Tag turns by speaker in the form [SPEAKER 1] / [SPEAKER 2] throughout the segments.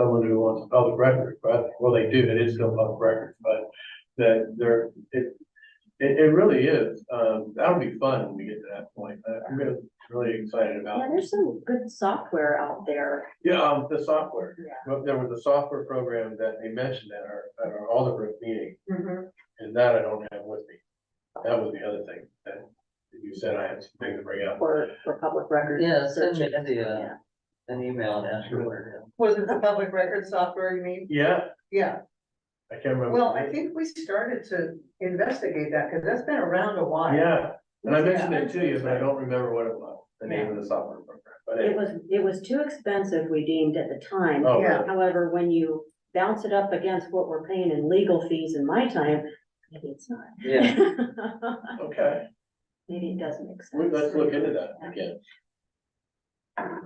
[SPEAKER 1] someone who wants public record, but, well, they do, it is still public record, but that they're, it, it, it really is, um, that'll be fun when we get to that point, Uh, I'm really, really excited about
[SPEAKER 2] Yeah,
[SPEAKER 1] it.
[SPEAKER 2] there's some good software out there.
[SPEAKER 1] Yeah, um, the software,
[SPEAKER 2] Yeah.
[SPEAKER 1] but there was a software program that they mentioned at our, at our Alderbrook meeting,
[SPEAKER 3] Mm-hmm.
[SPEAKER 1] and that I don't have with me. That was the other thing, that you said I had something to bring up.
[SPEAKER 2] For, for public records.
[SPEAKER 4] Yeah,
[SPEAKER 2] Search
[SPEAKER 4] send me
[SPEAKER 2] it.
[SPEAKER 4] the, uh,
[SPEAKER 2] Yeah.
[SPEAKER 4] an email and ask her where
[SPEAKER 3] Was it the public record software you mean?
[SPEAKER 1] Yeah,
[SPEAKER 3] Yeah,
[SPEAKER 1] I can't remember.
[SPEAKER 3] well, I think we started to investigate that, because that's been around a while.
[SPEAKER 1] Yeah, and I mentioned it to you, but I don't remember what it was, the name of the software program, but
[SPEAKER 2] It
[SPEAKER 1] anyway.
[SPEAKER 2] was, it was too expensive, we deemed at the time.
[SPEAKER 1] Oh,
[SPEAKER 3] Yeah.
[SPEAKER 1] really?
[SPEAKER 2] However, when you bounce it up against what we're paying in legal fees in my time, maybe it's not.
[SPEAKER 4] it is. Yeah,
[SPEAKER 1] okay,
[SPEAKER 2] Maybe it doesn't make
[SPEAKER 1] well,
[SPEAKER 2] sense.
[SPEAKER 1] let's look into that again.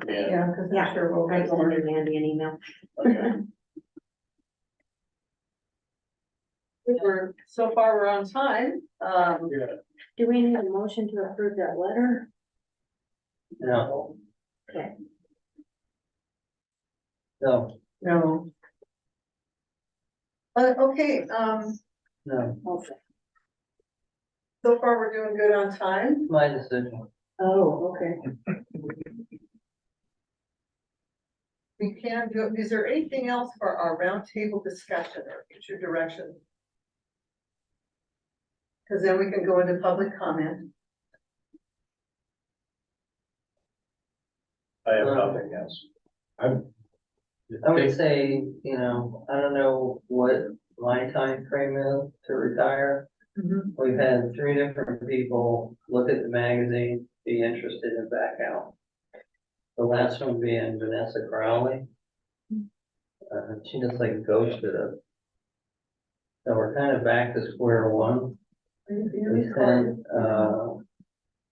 [SPEAKER 1] Yeah,
[SPEAKER 3] Yeah, because
[SPEAKER 2] Yeah.
[SPEAKER 3] I'm sure we'll
[SPEAKER 2] I'm
[SPEAKER 3] get more.
[SPEAKER 2] sending Mandy an email.
[SPEAKER 1] okay,
[SPEAKER 3] We're, so far, we're on time, um,
[SPEAKER 1] yeah,
[SPEAKER 2] Do we need a motion to approve that letter?
[SPEAKER 4] no.
[SPEAKER 2] Okay.
[SPEAKER 4] No,
[SPEAKER 3] no. Uh, okay, um,
[SPEAKER 4] no,
[SPEAKER 3] so far, we're doing good on time,
[SPEAKER 4] my decision.
[SPEAKER 2] Oh, okay.
[SPEAKER 3] we can do, is there anything else for our roundtable discussion or future direction? Because then we can go into public comment,
[SPEAKER 1] I have nothing else. I'm.
[SPEAKER 4] I would say, you know, I don't know what my time frame is to retire.
[SPEAKER 3] Mhm.
[SPEAKER 4] We've had three different people look at the magazine, be interested and back out. The last one being Vanessa Crowley. Uh, she just like ghosted us. So we're kind of back to square one. We sent, uh,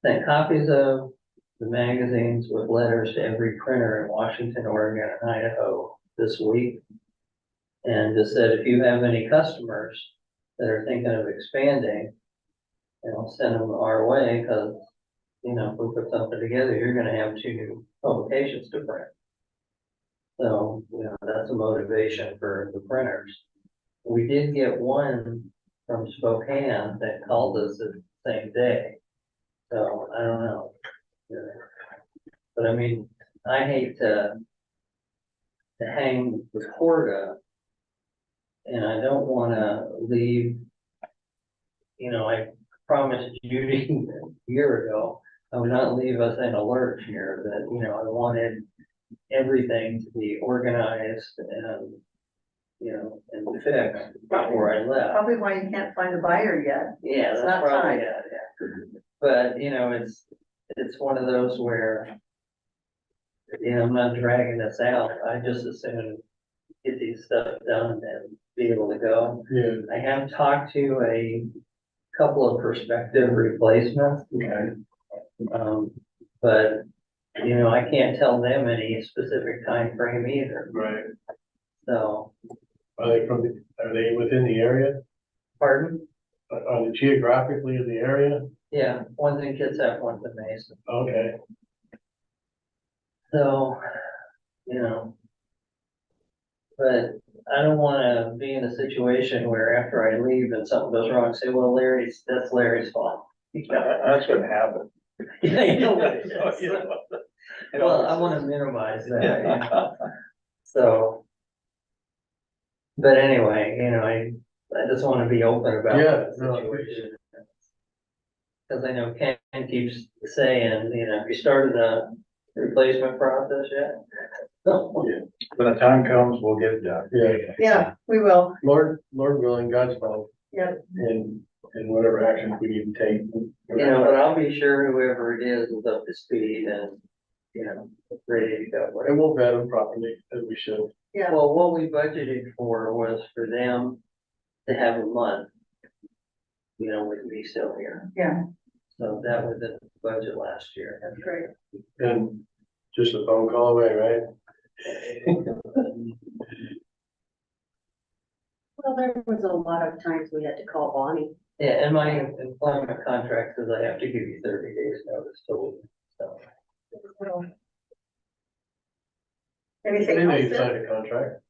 [SPEAKER 4] sent copies of the magazines with letters to every printer in Washington, Oregon, and Idaho this week. And just said, if you have any customers that are thinking of expanding, you know, send them our way, because, you know, if we put something together, you're gonna have two new publications to print. So, you know, that's a motivation for the printers. We did get one from Spokane that called us the same day. So I don't know. Yeah. But I mean, I hate to to hang with Horta. And I don't wanna leave. You know, I promised Judy a year ago, I would not leave us in a lurch here that, you know, I wanted everything to be organized and, you know, and fixed before I left.
[SPEAKER 3] probably why you can't find a buyer yet.
[SPEAKER 4] Yeah,
[SPEAKER 3] It's
[SPEAKER 4] that's
[SPEAKER 3] not
[SPEAKER 4] probably,
[SPEAKER 3] time.
[SPEAKER 4] it, yeah. But, you know, it's, it's one of those where, you know, I'm not dragging this out. I just assume get these stuff done and be able to go.
[SPEAKER 1] Yeah,
[SPEAKER 4] I have talked to a couple of prospective replacements,
[SPEAKER 1] okay,
[SPEAKER 4] um, but, you know, I can't tell them any specific time frame either.
[SPEAKER 1] right,
[SPEAKER 4] So,
[SPEAKER 1] are they from, the- are they within the area,
[SPEAKER 4] pardon?
[SPEAKER 1] are are they geographically in the area?
[SPEAKER 4] Yeah, one's in Kitsap, one's in Mason.
[SPEAKER 1] Okay,
[SPEAKER 4] So, you know. But I don't wanna be in a situation where after I leave and something goes wrong, say, well, Larry's, that's Larry's fault.
[SPEAKER 5] That's what happened.
[SPEAKER 4] Yeah, you know what it
[SPEAKER 1] Oh,
[SPEAKER 4] is. Well, I wanna minimize that, you know, so. But anyway, you know, I, I just wanna be open about
[SPEAKER 1] Yeah,
[SPEAKER 4] the
[SPEAKER 1] no, I
[SPEAKER 4] situation. Cause I know Ken keeps saying, you know, have you started the replacement process yet?
[SPEAKER 5] When the time comes, we'll get it done.
[SPEAKER 1] yeah,
[SPEAKER 3] Yeah, we will.
[SPEAKER 1] Lord, Lord willing, God's will.
[SPEAKER 3] Yeah.
[SPEAKER 1] And, and whatever actions we need to take.
[SPEAKER 4] You know, but I'll be sure whoever it is is up to speed and, you know, ready to go, whatever.
[SPEAKER 1] And we'll vet them properly, as we should.
[SPEAKER 3] Yeah,
[SPEAKER 4] Well, what we budgeted for was for them to have a month. You know, with me still here,
[SPEAKER 3] yeah,
[SPEAKER 4] so that was the budget last year.
[SPEAKER 3] that's great.
[SPEAKER 1] And just a phone call away, right?
[SPEAKER 2] Well, there was a lot of times we had to call Bonnie.
[SPEAKER 4] Yeah, and my employment contract says I have to give you thirty days notice, so, so.
[SPEAKER 3] Anything
[SPEAKER 1] They know
[SPEAKER 3] else?
[SPEAKER 1] you
[SPEAKER 3] Ed?
[SPEAKER 1] signed a contract.